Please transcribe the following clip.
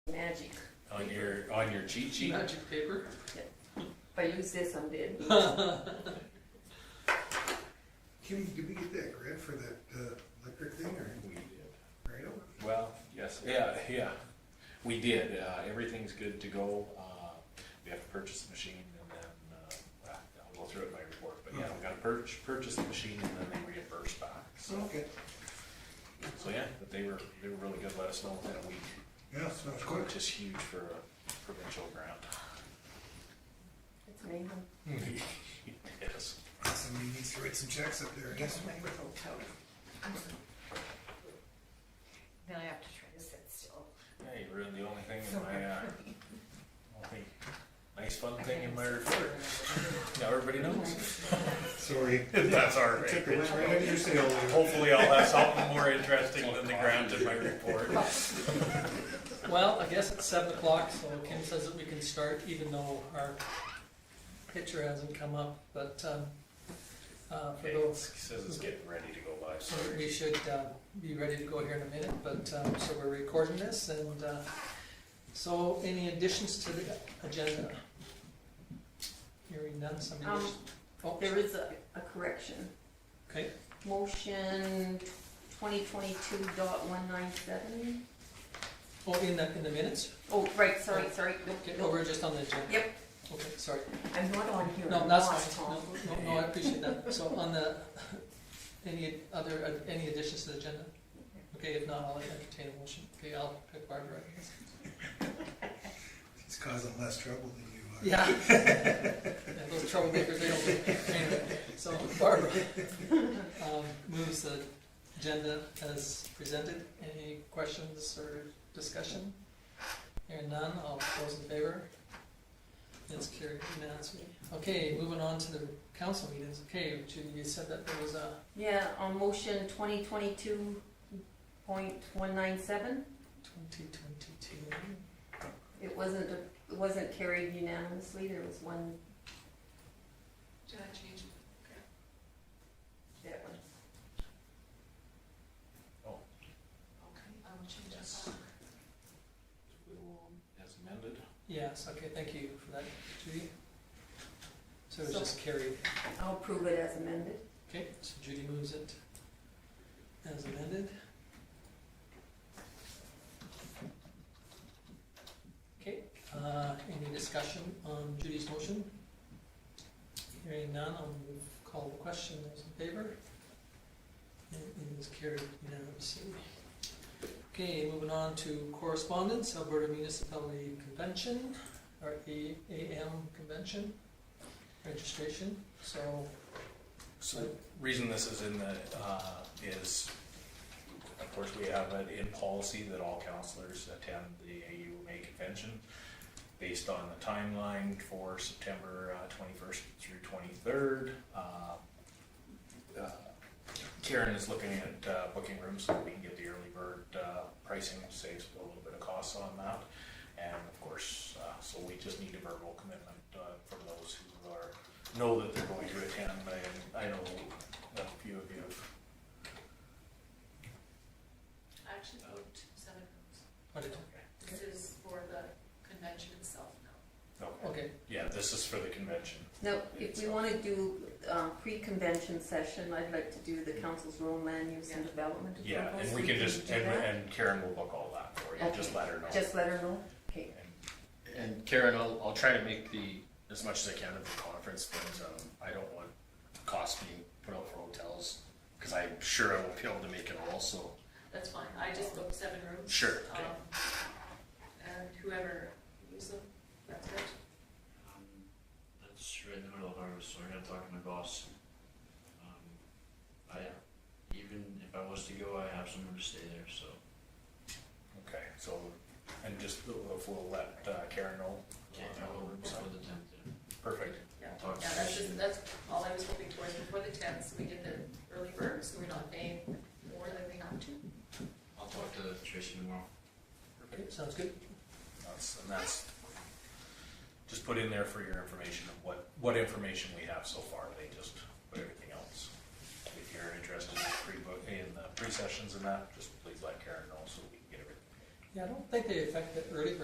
magic. on your, on your cheat sheet? Magic paper. If I use this, I'm dead. Kim, did we get that grant for that uh, electric thing or? We did. Right over. Well, yes, yeah, yeah, we did, uh, everything's good to go, uh, we have to purchase the machine and then, uh, I'll go through it in my report, but yeah, we gotta purchase, purchase the machine and then they reimburse back, so, Okay, so yeah, but they were, they were really good, let us know within a week, yeah, sounds good. which is huge for a provincial grant. It's amazing. Yes, Somebody needs to write some checks up there, I guess. Now I have to try to sit still. yeah, you ruined the only thing in my, uh, only nice fun thing in my report, now everybody knows. Sorry. That's our I took the wind right out of your sail there. Hopefully I'll have something more interesting than the ground in my report. Well, I guess it's seven o'clock, so Kim says that we can start even though our picture hasn't come up, but, um, uh, for Okay, those Says it's getting ready to go live, So so we should uh, be ready to go here in a minute, but, um, so we're recording this, and uh, so any additions to the agenda? Hearing none, some Um, additions? Oh, There is a, a correction. Okay, Motion twenty twenty-two dot one nine seven. oh, in the, in the minutes? Oh, right, sorry, sorry. Nope, Okay, oh, nope. we're just on the agenda? Yep. Okay, sorry. I'm not on here. No, I'm that's, lost, Tom. no, no, no, I appreciate that. So on the, any other, uh, any additions to the agenda? Okay, if not, I'll entertain a motion. Okay, I'll pick Barbara. It's causing less trouble than you are. Yeah. Yeah, Those troublemakers, they don't, anyway, so Barbara um, moves the agenda as presented. Any questions or discussion? Hearing none, all those in favor? It's carried unanimously. Okay, moving on to the council meetings. Okay, Judy, you said that there was a Yeah, on motion twenty twenty-two point one nine seven, twenty twenty-two. it wasn't, it wasn't carried unanimously, there was one, Did I change? that one. Okay, I will change Yes. we will, as um, amended. Yes, okay, thank you for that, Judy. So it was So- just carried. I'll approve it as amended. Okay, so Judy moves it as amended. Okay, uh, any discussion on Judy's motion? Hearing none, I'll move, call the question, those in favor? And it is carried unanimously. Okay, moving on to correspondence, Alberta Municipality Convention, or A- AM Convention, registration, so So the reason this is in the, uh, is, of course, we have it in policy that all counselors attend the AUMA convention based on the timeline for September uh, twenty-first through twenty-third. Uh, Karen is looking at uh, booking rooms so we can get the early bird uh, pricing, saves a little bit of costs on that. And of course, uh, so we just need a verbal commitment uh, from those who are know that they're going to attend, I, I know a few of you. I actually Oh. wrote seven rooms. What did- This is for the convention itself now. Okay. Okay, Yeah, this is for the convention. Now, if we wanna do, uh, pre-convention session, I'd like to do the council's rural land use and development. Yeah, approvals. and we can just, do and, that. and Karen will book all that for you, just Okay. let her know. Just let her know, okay. And Karen, I'll, I'll try to make the, as much as I can of the conference, but, um, I don't want costs being put out for hotels, cause I'm sure I won't be able to make it all, so, That's fine, I just booked seven rooms. sure. okay. um, And whoever uses them, that's it. Um, That's right in the middle of harvest, so I gotta talk to my boss. Um, I, even if I was to go, I have somewhere to stay there, so. Okay, so, and just, if we'll let uh, Karen know. Okay, I will work So, for the tenth then. Perfect. Yeah, Oh, Talk to yeah, that's Susan. just, that's all I was hoping for, is before the tenth, so we get the early bird, so we're not paying more than we have to. I'll talk to Tricia tomorrow. okay, sounds good. That's, and that's, just put in there for your information of what, what information we have so far, they just put everything else. If you're interested in pre-book, in the pre-sessions and that, just please let Karen know so we can get everything. Yeah, I don't think they affect the early bird